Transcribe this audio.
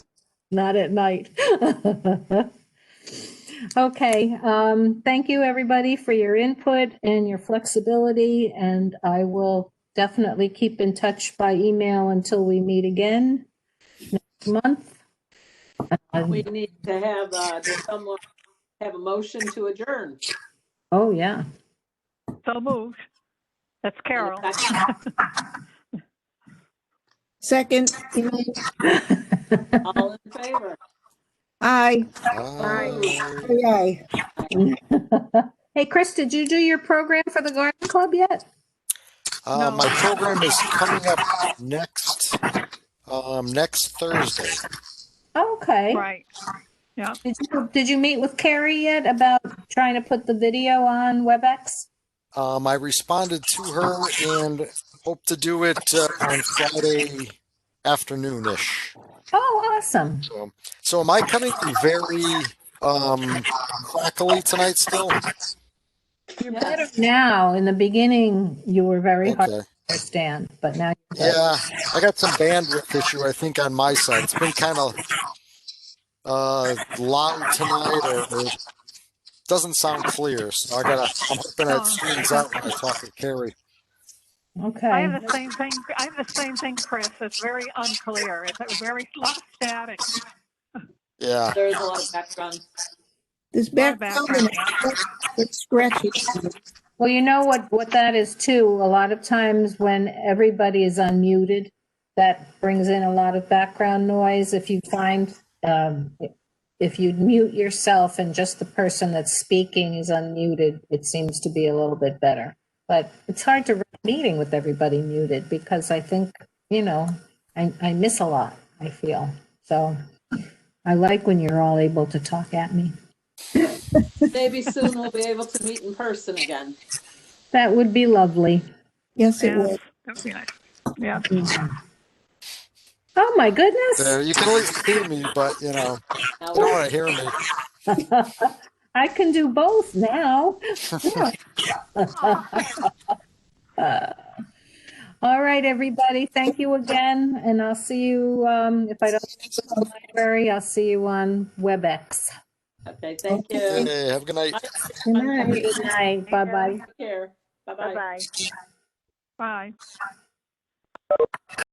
Not at night. Okay, um, thank you, everybody, for your input and your flexibility, and I will definitely keep in touch by email until we meet again next month. Um, We need to have, uh, does someone have a motion to adjourn? Oh, yeah. So moved. That's Carol. Second, All in favor? aye, Aye. aye, aye. Hey, Chris, did you do your program for the garden club yet? Uh, my program is coming up next, um, next Thursday. Okay. Right. Did you, did you meet with Carrie yet about trying to put the video on WebEx? Um, I responded to her and hope to do it uh, on Friday afternoon-ish. Oh, awesome. So, so am I coming very, um, crackly tonight still? Yes. Now, in the beginning, you were very hard Okay. to understand, but now. you're good. Yeah, I got some bandwidth issue, I think, on my side. It's been kind of uh, loud tonight, or, or doesn't sound clear. So I gotta. I'm hoping that screens out when I talk to Carrie. I Okay. have the same thing, I have the same thing, Chris. It's very unclear. It's very a lot of static. Yeah, There's a lot of background. This Our background, it's scratchy. Well, you know what, what that is too, a lot of times when everybody is unmuted, that brings in a lot of background noise. If you find, um, if you mute yourself and just the person that's speaking is unmuted, it seems to be a little bit better. But it's hard to run a meeting with everybody muted because I think, you know, I, I miss a lot, I feel. So I like when you're all able to talk at me. Maybe soon we'll be able to meet in person again. That would be lovely. Yes, it Yes, was. that would be nice. Yeah, Oh, my goodness. there. You can at least hear me, but you know, Now you don't want to hear me. I can do both now. All right, everybody, thank you again, and I'll see you, um, if I don't see you in the library, I'll see you on WebEx. Okay, thank you. Hey, have a good night. Good night. Good night, bye-bye. Take care. Bye-bye. bye.